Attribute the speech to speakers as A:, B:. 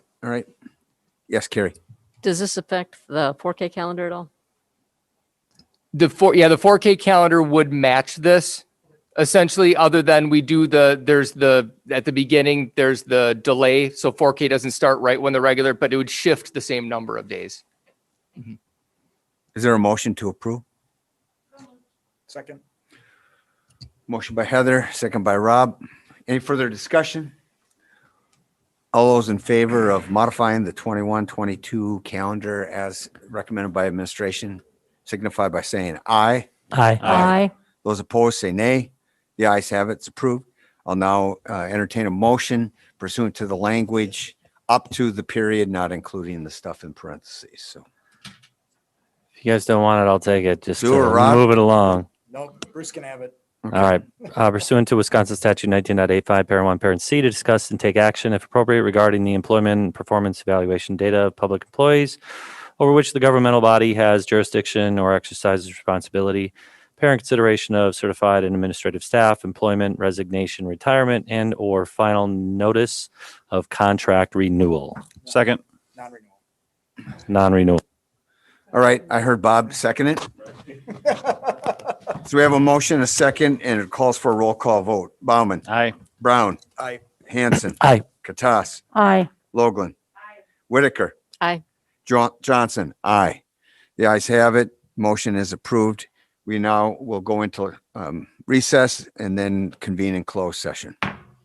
A: All right. Yes, Carrie.
B: Does this affect the 4K calendar at all?
C: The four, yeah, the 4K calendar would match this essentially, other than we do the, there's the, at the beginning, there's the delay. So 4K doesn't start right when the regular, but it would shift the same number of days.
A: Is there a motion to approve?
D: Second.
A: Motion by Heather, second by Rob. Any further discussion? All those in favor of modifying the 21-22 calendar as recommended by administration signify by saying aye.
E: Aye.
B: Aye.
A: Those opposed say nay. The ayes have it. It's approved. I'll now uh, entertain a motion pursuant to the language up to the period, not including the stuff in parentheses. So
E: If you guys don't want it, I'll take it. Just
A: Do it,
E: to
A: Rob.
E: move it along.
D: Nope, Bruce can have it.
E: All right. Uh, pursuant to Wisconsin Statute 19.85, Parent 1, Parent C, to discuss and take action, if appropriate, regarding the employment and performance evaluation data of public employees over which the governmental body has jurisdiction or exercises responsibility, parent consideration of certified and administrative staff, employment, resignation, retirement, and/or final notice of contract renewal,
F: Second.
D: Non-renewal.
E: non-renewal.
A: All right, I heard Bob second it. So we have a motion, a second, and it calls for a roll call vote. Bauman,
F: Aye.
A: Brown.
D: Aye.
A: Hanson.
E: Aye.
A: Katas.
B: Aye.
A: Logland. Whitaker.
B: Aye.
A: Jo- Johnson. Aye. The ayes have it. Motion is approved. We now will go into um, recess and then convene in closed session.